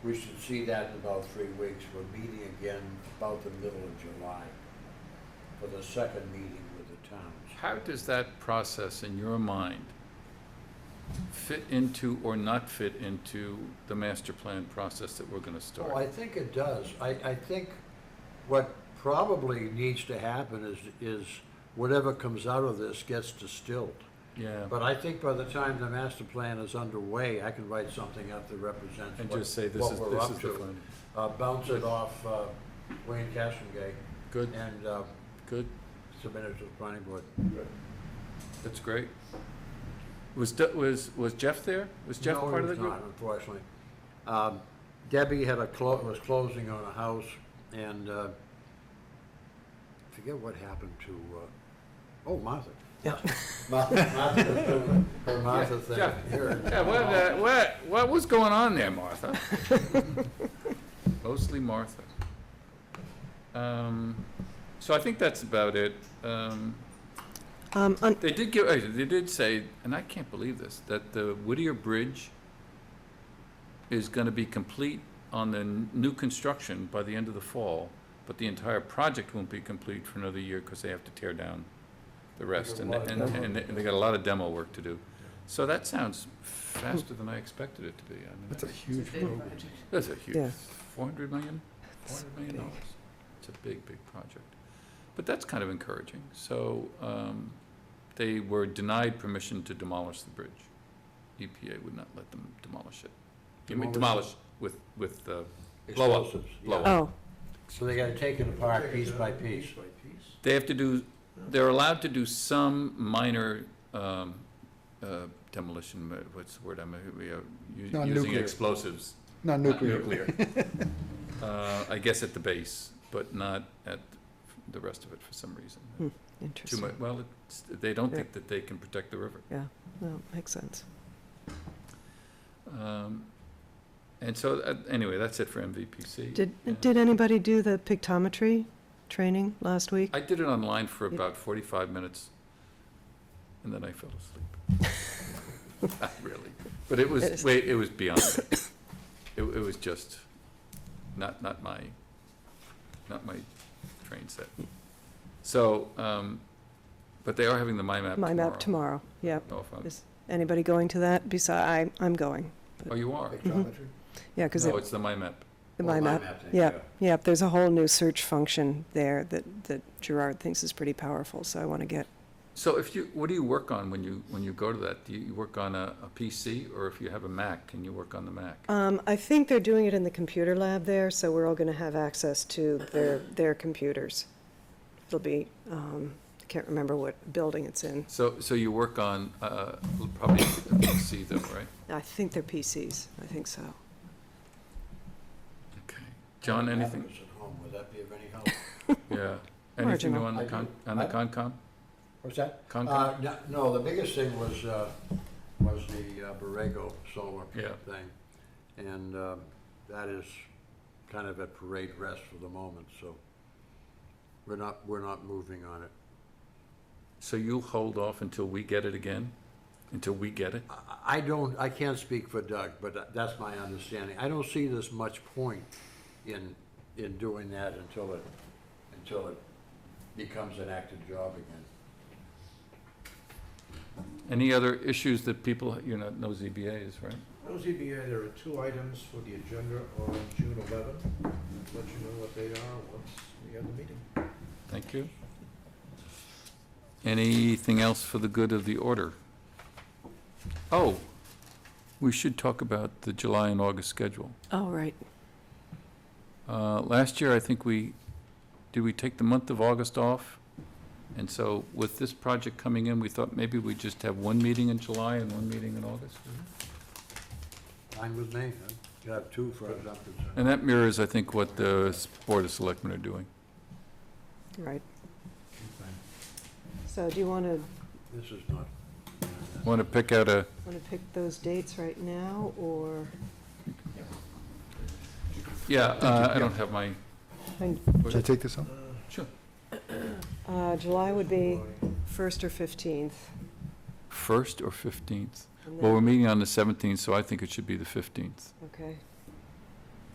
We should see that in about three weeks. We're meeting again about the middle of July for the second meeting with the towns. How does that process, in your mind, fit into or not fit into the master plan process that we're going to Well, Oh, I start? think it does. I, I think what probably needs to happen is, is whatever comes out of this gets distilled. Yeah, But I think by the time the master plan is underway, I can write something up that represents and what- just say this what is, we're this up is the to. plan. Uh, bounce it off, uh, Wayne Castlegate Good, and, uh, good, submit it to the planning board. that's great. Was, De- was, was Jeff there? Was Jeff No, he part of the was group? not, Unfortunately. Um, Debbie had a, clo- was closing on a house and, uh, forget what happened to, uh, oh, Martha. Yeah. Martha, Martha was doing her Martha Yeah, thing Jeff. here. Yeah, what, uh, what, what was going on there, Martha? Mostly Martha. Um, So I think that's about it. Um, Um, un- They did give, uh, they did say, and I can't believe this, that the Whittier Bridge is gonna be complete on the n- new construction by the end of the fall, but the entire project won't be complete for another year, cause they have to tear down the rest, and, There's a and, lot of demo. and they- they got a lot of demo work to do. So that sounds faster than I expected it to be, I mean. That's a huge program. That's a huge, Yeah. four hundred million, four That's hundred million big. dollars. It's a big, big project. But that's kind of encouraging. So, um, they were denied permission to demolish the bridge. EPA would not let them demolish it. I mean, Demolish demolish with, with, uh, Blow up, Explosives, yeah. blow up. oh, So they gotta take it apart piece by piece. they have to do, they're allowed to do some minor, um, uh, demolition, uh, what's the word I'm, uh, we are u- No, using nuclear. explosives. Not Not nuclear. Uh, I guess at the base, but not at the rest of it for some reason. Hmm. Too interesting. much, well, it's, they don't Yeah. think that they can protect the river. No, makes sense. Um, And so, uh, anyway, that's it for MVPC. Yeah. Did, did anybody do the pictometry training last week? I did it online for You- about forty-five minutes, and then I fell asleep. Not really, but it It was, is- wait, it was beyond that. It, it was just not, not my, not my train set. So, um, but they are having the MyMap tomorrow. Oh, My map tomorrow, yep. Don't know if I'm- Is anybody going to that beside, I, I'm going. Oh, you are? Spectrometry? Yeah, because No, it's the MyMap. the my map, thing, yeah. yep, there's a whole new search function there that, that Gerard thinks is pretty powerful, so I want to get, So if you, what do you work on when you, when you go to that? Do you work on a, a PC or if you have a Mac, can you work on the Mac? um, I think they're doing it in the computer lab there, so we're all going to have access to their, their computers. It'll be, um, I can't remember what building it's in. So, so you work on, uh, probably a PC though, right? I think they're PCs, I think so. Okay. John, anything? Happens at home, would that be of any help? Yeah. Anything new Marginal. on the con, on the Concom? What's that? Concom? Uh, no- No, the biggest thing was, uh, was the uh, Borrego solar Yeah. thing. And um, that is kind of at parade rest for the moment, so we're not, we're not moving on it. So you hold off until we get it again? Until we get it? I- I don't, I can't speak for Doug, but tha- that's my understanding. I don't see this much point in, in doing that until it, until it becomes an active job again. Any other issues that people, you know, no ZBA is, right? No ZBA, there are two items for the agenda on June 11. Let you know what they are once we have the meeting. Thank you. Anything else for the good of the order? Oh, we should talk about the July and August schedule. Oh, right. Uh, Last year, I think we, did we take the month of August off? And so with this project coming in, we thought maybe we'd just have one meeting in July and one meeting in August. Fine with me, huh? you have two for example. And that mirrors, I think, what the s- Board of Selectmen are doing. Right. So do you want to, This is not. Want to pick out a, want to pick those dates right now, or? yeah, uh, I don't have my, Should I take this up? sure. Uh, July would be first or fifteenth. First or 15th? Well, we're meeting on the 17th, so I think it should be the 15th. Okay,